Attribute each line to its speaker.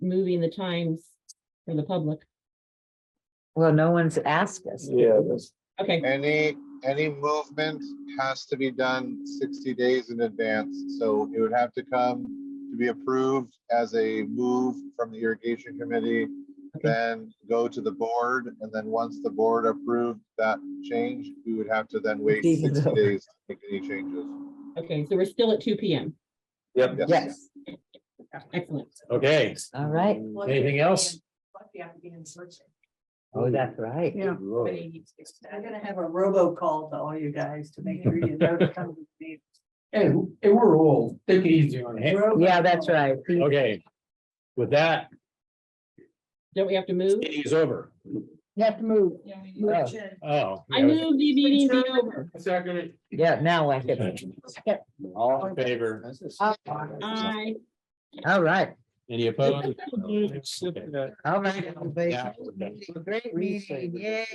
Speaker 1: moving the times for the public.
Speaker 2: Well, no one's asked us.
Speaker 3: Yeah, that's,
Speaker 1: Okay,
Speaker 4: Any, any movement has to be done sixty days in advance, so it would have to come to be approved as a move from the irrigation committee.
Speaker 1: Okay.
Speaker 4: Then go to the board, and then once the board approved that change, we would have to then wait
Speaker 2: Even
Speaker 4: sixty
Speaker 2: though-
Speaker 4: days to make any changes.
Speaker 1: okay, so we're still at two P M.
Speaker 3: yep,
Speaker 2: Yes,
Speaker 1: Excellent.
Speaker 3: okay.
Speaker 2: all right.
Speaker 3: Anything else?
Speaker 2: Oh, that's right.
Speaker 5: Yeah. I'm gonna have a robocall to all you guys to make sure you know to come to the
Speaker 3: Hey, hey, we're old, take it easy on him.
Speaker 5: meeting.
Speaker 2: Yeah, that's right.
Speaker 3: Okay. With that,
Speaker 1: Don't we have to move?
Speaker 3: meeting is over.
Speaker 2: You have to move.
Speaker 5: Robocall.
Speaker 3: Oh.
Speaker 1: I move the meeting be over.
Speaker 3: Second.
Speaker 2: Yeah, now I can.
Speaker 3: All in favor?
Speaker 1: I,
Speaker 2: All right,
Speaker 3: Any opposed? Okay.
Speaker 2: all right.
Speaker 3: Yeah.
Speaker 2: Great meeting, yay.